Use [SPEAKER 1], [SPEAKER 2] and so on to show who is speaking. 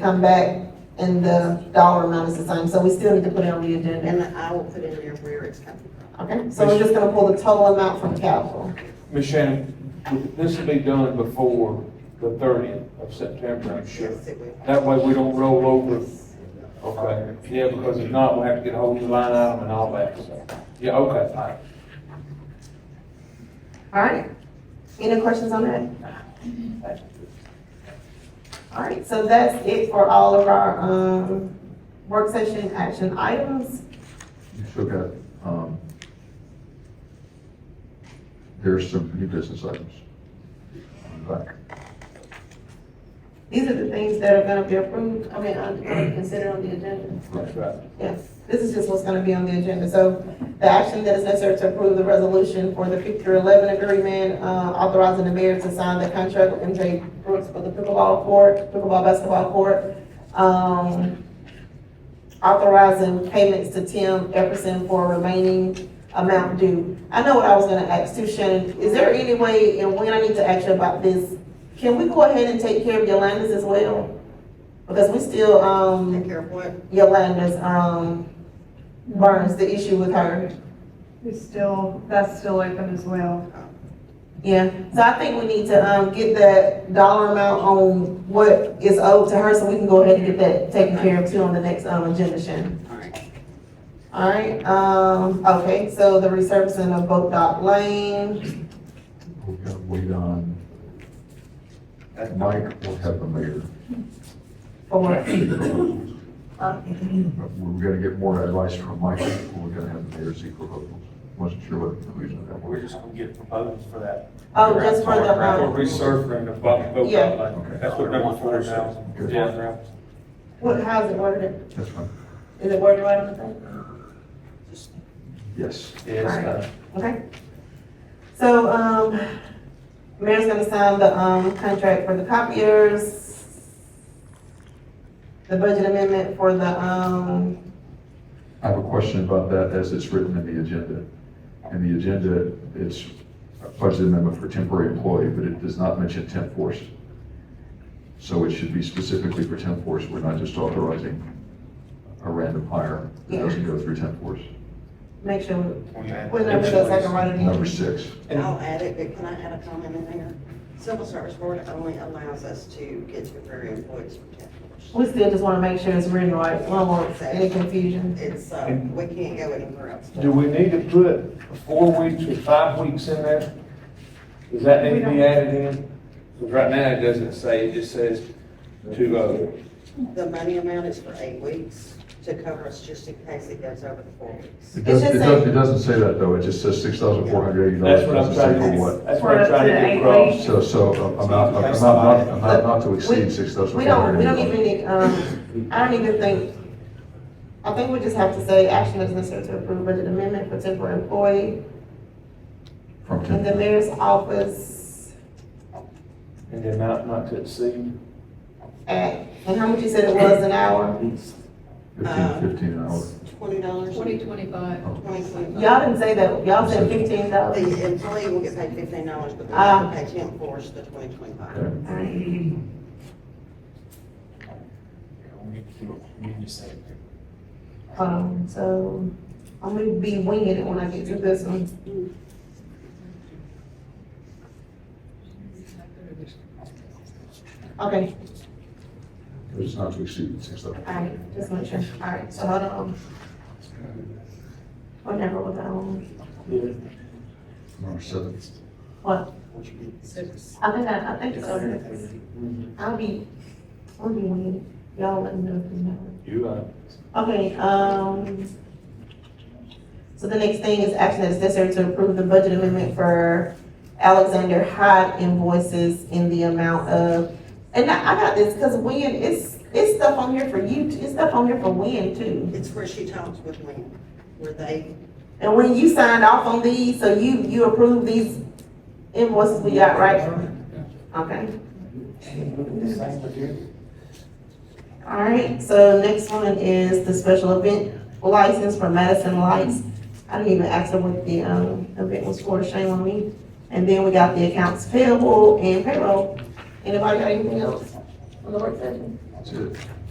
[SPEAKER 1] come back and the dollar amount is the same, so we still need to put it on the agenda.
[SPEAKER 2] And I will put in there where it's coming from.
[SPEAKER 1] Okay, so we're just gonna pull the total amount from capital.
[SPEAKER 3] Ms. Shannon, would this will be done before the thirtieth of September, I'm sure.
[SPEAKER 2] Yes, it will.
[SPEAKER 3] That way we don't roll over. Okay, yeah, because if not, we'll have to get a whole new line item and all that, so. Yeah, okay, fine.
[SPEAKER 1] All right. Any questions on that? All right, so that's it for all of our, um, work session action items.
[SPEAKER 4] You still got, um, there's some new business items. Back.
[SPEAKER 1] These are the things that are gonna be approved, I mean, uh, considered on the agenda.
[SPEAKER 3] That's right.
[SPEAKER 1] Yes, this is just what's gonna be on the agenda. So the action that is necessary to approve the resolution for the fifty-three eleven agreement, uh, authorizing the mayor to sign the contract with MJ Brooks for the pickleball court, pickleball basketball court. Um, authorizing payments to Tim Epperson for remaining amount due. I know what I was gonna ask too, Shannon. Is there any way, and when I need to ask you about this, can we go ahead and take care of Yolanda's as well? Because we still, um.
[SPEAKER 2] Take care of what?
[SPEAKER 1] Yolanda's, um, Burns, the issue with her.
[SPEAKER 5] It's still, that's still open as well.
[SPEAKER 1] Yeah, so I think we need to, um, get that dollar amount on what is owed to her, so we can go ahead and get that taken care of too on the next, um, agenda, Shannon.
[SPEAKER 2] All right.
[SPEAKER 1] Alright, um, okay, so the resurfacing of Boat Dock Lane,
[SPEAKER 4] We're gonna wait on, Mike will have the mayor.
[SPEAKER 1] for what?
[SPEAKER 4] But We're gonna get more advice from Mike, before we're gonna have the mayor's equal proposals. Wasn't sure what the conclusion of that
[SPEAKER 6] We're
[SPEAKER 4] was.
[SPEAKER 6] just gonna get proposals for that.
[SPEAKER 1] Oh, just for the,
[SPEAKER 3] We're
[SPEAKER 1] um,
[SPEAKER 3] resurfacing the boat, boat
[SPEAKER 1] Yeah.
[SPEAKER 3] outlet. That's what number four is now.
[SPEAKER 4] Okay.
[SPEAKER 3] Yeah.
[SPEAKER 1] what, how's it worded?
[SPEAKER 4] That's fine.
[SPEAKER 1] Is it worded right on the thing?
[SPEAKER 4] Yes.
[SPEAKER 3] Yes, uh,
[SPEAKER 1] Okay. So, um, mayor's gonna sign the, um, contract for the copiers. The budget amendment for the, um,
[SPEAKER 4] I have a question about that as it's written in the agenda. In the agenda, it's a budget amendment for temporary employee, but it does not mention temp force. So it should be specifically for temp force. We're not just authorizing a random hire that doesn't go through temp force.
[SPEAKER 1] make sure,
[SPEAKER 6] when you add-
[SPEAKER 1] whenever those, I can write it
[SPEAKER 4] Number
[SPEAKER 1] in.
[SPEAKER 4] six,
[SPEAKER 2] I'll add it, but can I add a comment in there? Civil Service Board only allows us to get temporary employees for ten years.
[SPEAKER 1] We still just wanna make sure it's written right, we don't want any confusion.
[SPEAKER 2] It's, uh, we can't go anywhere else.
[SPEAKER 3] Do we need to put four weeks or five weeks in there? Does that need to be added in? Because right now it doesn't say, it just says to, uh,
[SPEAKER 2] The money amount is for eight weeks to cover us just in case it goes over the four weeks.
[SPEAKER 4] it doesn't,
[SPEAKER 1] just
[SPEAKER 4] it doesn't, it doesn't say that though. It just says six thousand four hundred eighty dollars.
[SPEAKER 3] that's what I'm trying to, do. that's what I'm trying to get across.
[SPEAKER 4] So, so uh, amount, amount, not- amount not to exceed six thousand
[SPEAKER 1] We
[SPEAKER 4] four hundred
[SPEAKER 1] don't, we
[SPEAKER 4] eighty.
[SPEAKER 1] don't even need, um, I don't even think, I think we just have to say action is necessary to approve budget amendment for temporary employee
[SPEAKER 4] From
[SPEAKER 1] in
[SPEAKER 4] temp,
[SPEAKER 1] the mayor's office.
[SPEAKER 3] And the amount not to exceed.
[SPEAKER 1] at, and how much you said it was an hour?
[SPEAKER 2] Uh,
[SPEAKER 4] fifteen, fifteen an hour.
[SPEAKER 1] uh,
[SPEAKER 2] Twenty dollars?
[SPEAKER 7] Twenty twenty-five.
[SPEAKER 1] Y'all didn't say that, y'all said fifteen dollars.
[SPEAKER 2] The employee will get paid fifteen dollars, but they have to pay ten force the twenty twenty-five.
[SPEAKER 4] Okay.
[SPEAKER 6] We need to do it. We need to say it.
[SPEAKER 1] Um, so, I'm gonna be winging it when I get to this one. Okay,
[SPEAKER 4] It's not to exceed six thousand.
[SPEAKER 1] alright, just make sure, alright, so hold on. Whatever was that one,
[SPEAKER 4] Number seven.
[SPEAKER 1] what,
[SPEAKER 6] What you need.
[SPEAKER 1] I think I, I think it's over there. I'll be, I'll be winging it, y'all let me know if you know.
[SPEAKER 3] You, uh,
[SPEAKER 1] Okay, um, so the next thing is action that is necessary to approve the budget amendment for Alexander Hyde invoices in the amount of, and I, I got this, cause Wynn, it's, it's stuff on here for you, t- it's stuff on here for Wynn too.
[SPEAKER 2] It's where she talks with me, where they,
[SPEAKER 1] And when you signed off on these, so you, you approved these invoices we got, right? Okay.
[SPEAKER 6] Same with you.
[SPEAKER 1] All right, so next one is the special event license for Madison Lights. I didn't even ask her what the, um, event was for, shame on me. And then we got the accounts payable and payroll. Anybody got anything else on the work session?
[SPEAKER 4] That's it.